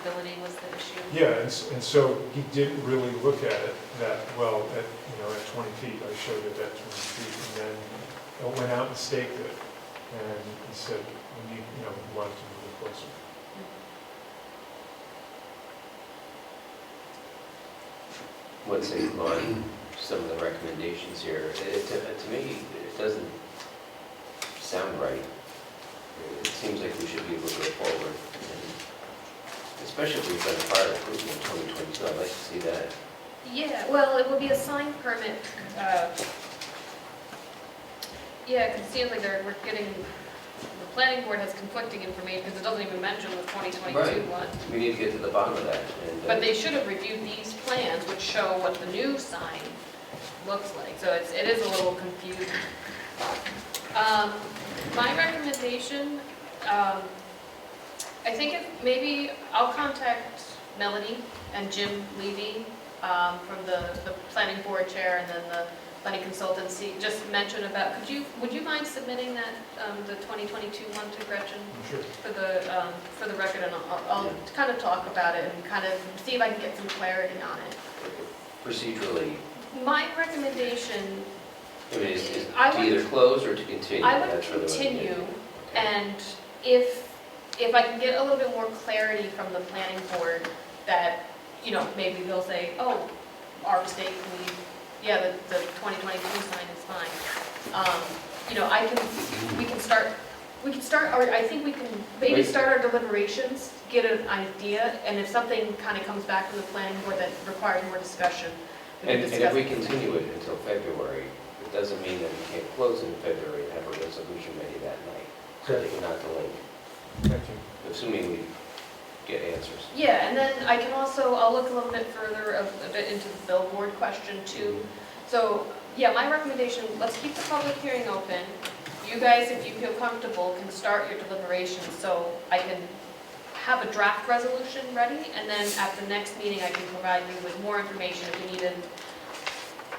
Ability was the issue. Yeah, and, s- and so he didn't really look at it that well at, you know, at 20 feet, I showed it at 20 feet, and then I went out and staked it, and he said, we need, you know, we want it to move it closer. what's it on some of the recommendations here? It, to, to me, it doesn't sound right. It seems like we should be able to go forward, and especially if we've done a fire improvement in twenty twenty-two, I'd like to see that. Yeah, well, it will be a sign permit. uh, Yeah, because it seems like they're, we're getting, the planning board has conflicting information because it doesn't even mention the 2022 Right. one. We need to get to the bottom of that, and. uh, But they should have reviewed these plans which show what the new sign looks like, so it's, it is a little confusing. Um, My recommendation, um, I think if, maybe I'll contact Melanie and Jim Levy um, from the, the planning board chair and then the planning consultancy, just mention about, could you, would you mind submitting that, um, the 2022 one to Gretchen? I'm sure. for the, um, for the record, and I'll, I'll Yeah. kind of talk about it and kind of see if I can get some clarity on it. uh, Procedurally, My recommendation, I mean, is, is I to would- either close or to continue? I would That's really what I'm getting continue, at. Okay. and if, if I can get a little bit more clarity from the planning board, that, you know, maybe they'll say, oh, our mistake, we, yeah, the, the 2022 sign is fine. Um, You know, I can, we can start, we can start, or I think we can maybe Right. start our deliberations, get an idea, and if something kind of comes back from the planning board that requires more discussion, we can And and discuss. if we continue it until February, it doesn't mean that we can't close in February and have a resolution ready that night, so Okay, that we're not delayed, thank you. assuming we get answers. Yeah, and then I can also, I'll look a little bit further of, a bit into the billboard question too, So, yeah, my recommendation, let's keep the public hearing open. You guys, if you feel comfortable, can start your deliberations, so I can have a draft resolution ready, and then at the next meeting, I can provide you with more information if you need to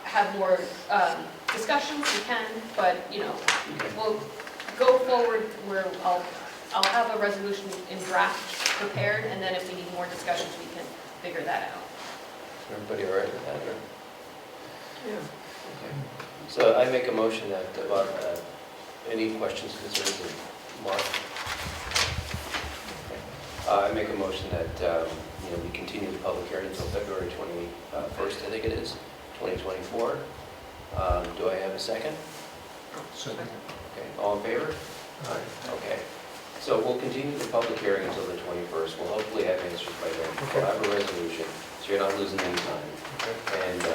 have more um, discussions, you can, but, you know, we'll go forward where I'll, I'll have a resolution in draft prepared, and then if we need more discussions, we can figure that out. Everybody all right with that, or? Okay. So I make a motion that, uh, uh, any questions, concerns, or Mark? Okay. Uh, I make a motion that, um, you know, we continue the public hearing until February 21st, I think it is, 2024. Um, Do I have a second? So, Okay, all in favor? all right. Okay, so we'll continue the public hearing until the 21st. We'll hopefully have answers by then. We'll have a resolution, so you're not losing any time. okay, And uh,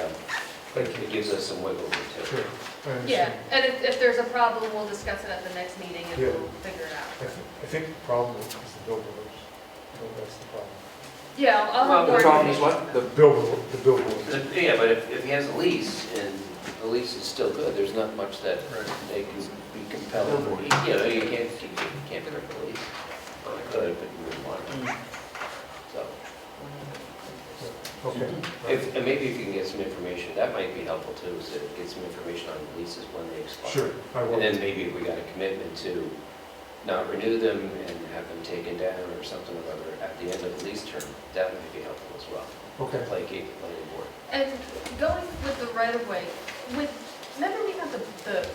thank you. it gives us some wiggle room too. Sure, I understand. Yeah, and if, if there's a problem, we'll discuss it at the next meeting and Yeah. we'll figure it I out. thi- I think the problem is the billboards, I think that's the problem. Yeah, I'll- I'll. have Well, more the problem is information. what? The- The billboard, the billboards. the- Yeah, but if if he has a lease and the lease is still good, there's not much that Right. they can be compelled. You know, you can't, you can't break the lease. Well, I could, but you wouldn't want to. Mm. So Okay. if, and maybe if you can get some information, that might be helpful too, is to get some information on the leases when they expire. Sure, I will. And then maybe if we got a commitment to not renew them and have them taken down or something or other at the end of the lease term, that might be helpful as well. Okay. Placate the planning board. And going with the right of way, with, remember we had the, the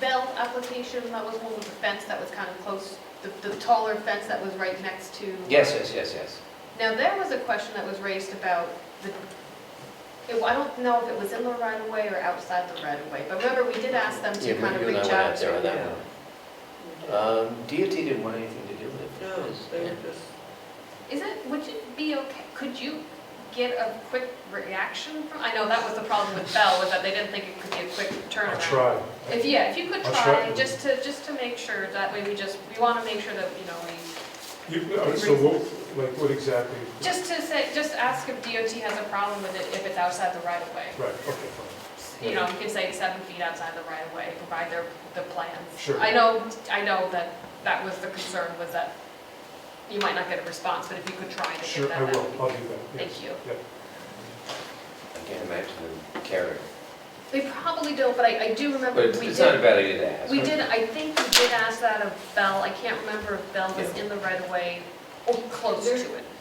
Bell application, that was one with the fence that was kind of close, the, the taller fence that was right next to. Yes, yes, yes, yes. Now, there was a question that was raised about the, it- I don't know if it was in the right of way or outside the right of way, but remember, we did ask them Yeah, to but kind of you and I reach went out there on to. that one. Um, DOT didn't want anything to do with it. No, they were just, Is it, would you be okay, could you get a quick reaction from, I know that was the problem with Bell, was that they didn't think it could be a quick I'll turnaround. try. If, yeah, if you could I'll try, try. just to, just to make sure, that way we just, we want to make sure that, you know, we, You- all right, So what, like, what exactly? just to say, just ask if DOT has a problem with it if it's outside the right of way. Right, okay, fine. You know, you can say seven feet outside the right of way, provide their, the plans. Sure. I know, I know that that was the concern, was that you might not get a response, but if you could try to get Sure, that, I that would will, be I'll do that, yes. Thank you. Yeah. I can't imagine them caring. They probably don't, but I, I do remember we But it's- did. it's not a bad idea to ask. We did, I think we did ask that of Bell, I can't remember if Bell was Yeah. in the right of way or close to There- it.